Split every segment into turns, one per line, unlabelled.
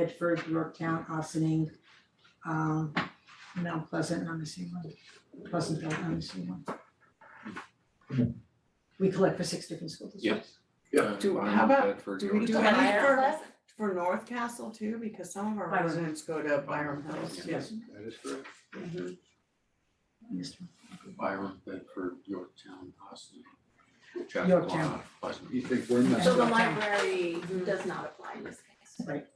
Bedford, Yorktown, Austining, um, Mount Pleasant, and I'm missing one, Pleasantville, I'm missing one. We collect for six different school districts.
Yeah.
Do-
I'm
how
in
about-
Bedford,
do we do
Yorktown.
any
Byron
for,
Pleasant.
for North Castle too, because some of our
Byron.
residents go to Byram Hills,
Yes.
yes.
That is correct.
Mhm.
Mr.
Byron, Bedford, Yorktown, Austin. Chappaqua,
Yorktown.
Pleasant.
You think we're
So
not,
the
Okay.
library does not apply in this case.
Ve-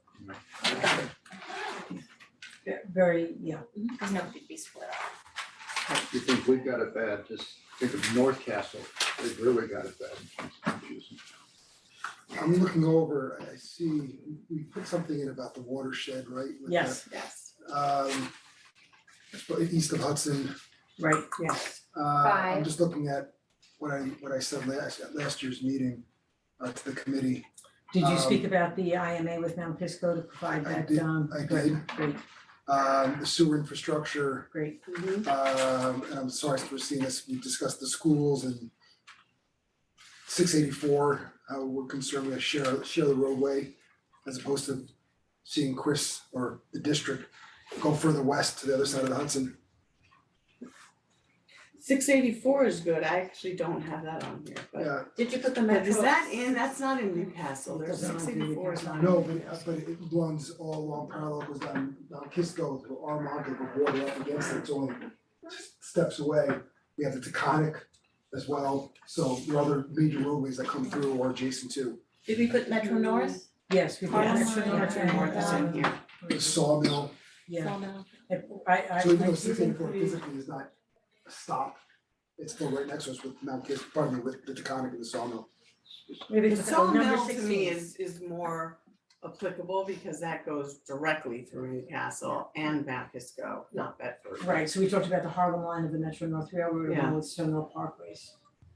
Very, yeah,
Because no, it'd be split up.
you think we've got it bad, just think of North Castle, they've really got it bad.
I'm looking over, I see, we put something in about the watershed, right? with the,
yes,
Yes,
Um, but east of Hudson,
right,
yes.
uh, I'm
Five.
just looking at what I, what I said last, at last year's meeting, uh, to the committee.
did you
Um,
speak about the IMA with Mount Pisco to provide
I
that,
did-
um,
I
good,
did.
great,
Um, the sewer infrastructure,
great,
Mhm.
um, and I'm sorry for seeing this, we discussed the schools and six eighty-four, how we're concerned with share, share the roadway as opposed to seeing Chris or the district go further west to the other side of the Hudson.
Six eighty-four is good, I actually don't have that on here, but,
Yeah,
Did you put the
but
metro?
is that in, that's not in Newcastle, there's
Doesn't
six
include
eighty-four is not. in
no, but,
Newcastle.
but it runs all along parallel, goes down, down Kisco, through Armonk, the water up against it, it's only just steps away. We have the Taconic as well, so the other major roadways that come through or adjacent to
Did we put Metro North?
Mm-hmm.
yes, we did.
Yes,
Metro North
Metro
and,
North is in
um,
here,
the sawmill
Yeah,
Sawmill.
I, I, I
So even though
did
sixteen four
include-
physically is not a stop, it's still right next to us with Mount Kis, pardon me, with the Taconic and the Sawmill.
Maybe
The
it's uh, number
sawmill to me
sixteen,
is, is more applicable because that goes directly through Newcastle and Mount Kisco, not Bedford.
right, so we talked about the Harlem line of the Metro North Railroad
Yeah.
along with Stonewall Parkways.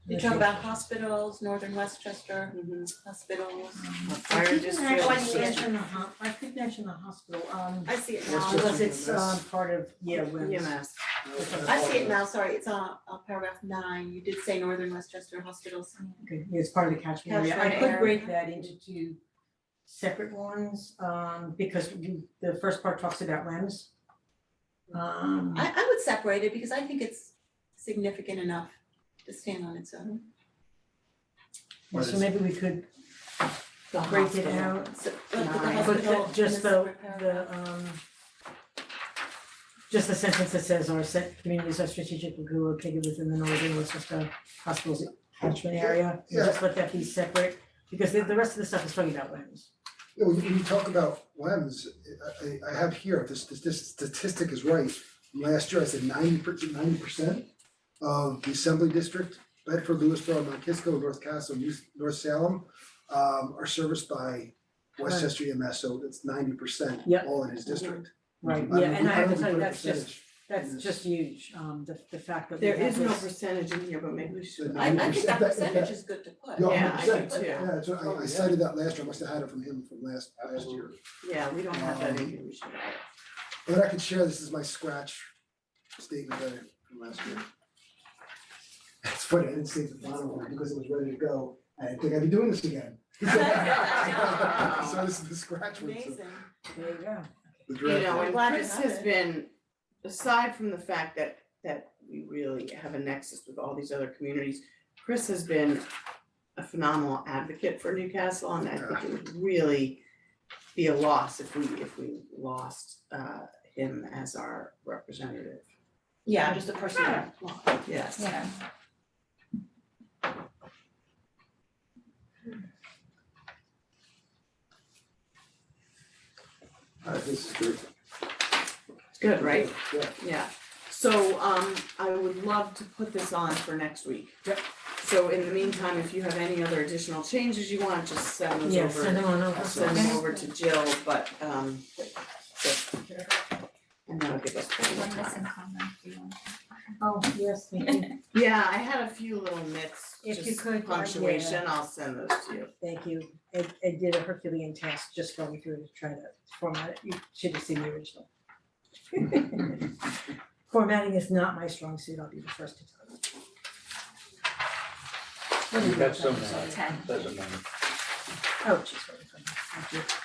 You talk about hospitals, northern Westchester
Mhm.
hospitals.
A fire district.
I could mention the ho- I could mention the hospital, um,
I see it
Westchester.
now.
because it's um part of, yeah, when.
EMS.
I see it now, sorry, it's on, on paragraph nine. You did say northern Westchester hospitals.
Okay, yeah, it's part of the catchment area, I
Catchment
could
area.
break that into two separate ones, um, because you, the first part talks about LEMS. Um,
I, I would separate it because I think it's significant enough to stand on its own.
so maybe we could
The
break it
hospital.
out,
So, let's put the
Nine.
but
hospital
the- just
in a
the,
separate paragraph.
the, um, just the sentence that says our set communities are strategically located within the northern Westchester hospitals catchment area,
Yeah.
just let that be separate, because the, the rest of the stuff is talking about LEMS.
You know, when you talk about WEMS, I I I have here, if this this this statistic is right, last year I said ninety percent, ninety percent of the assembly district, Bedford, Lewisboro, Mount Kisco, North Castle, New- North Salem um are serviced by Westchester EMS, so it's ninety percent
Yep. Mm-hmm.
all in his district.
Right,
Mm-hmm. I
yeah,
don't-
and I have to
don't think
tell you,
put a
that's just,
percentage.
that's just huge, um, the, the fact that we
There
have
is no
this-
percentage in here, but maybe we should.
I, I think that
90%, that-
percentage
that-
is good to put.
Yeah,
Yeah, I do
100%.
too.
Yeah, that's right, I I cited that last year, I must have had it from him from last last year.
Yeah, we don't have that in here, we should add it.
But I could share, this is my scratch statement that I from last year. It's funny, I didn't save the final one because it was ready to go, I didn't think I'd be doing this again. So this is the scratch one, so
Amazing.
There you go.
the
You
draft.
know,
I'm
and
glad you
Chris
have
has
it.
been, aside from the fact that, that we really have a nexus with all these other communities, Chris has been a phenomenal advocate for Newcastle, and I think it would really be a loss if we, if we lost, uh, him as our representative.
Yeah, just a personal law.
Yes.
Yeah.
Uh, this is great.
Good, right?
Yeah.
Yeah, so um I would love to put this on for next week.
Yep.
So in the meantime, if you have any other additional changes you want, just send those
Yes,
over.
I know, I know.
I'll send them over to Jill, but um but- and that'll give us plenty of time.
Oh, yes, thank you.
Yeah, I had a few little myths,
If you
just
could, uh, yeah.
punctuation, I'll send those to you.
Thank you. I, I did a Herculean task just going through to try to format it. You should have seen the original. Formatting is not my strong suit, I'll be the first to tell you. What do you
We've
have?
got some, uh,
Ten.
doesn't matter.
Oh, jeez, where did it come from? Thank you.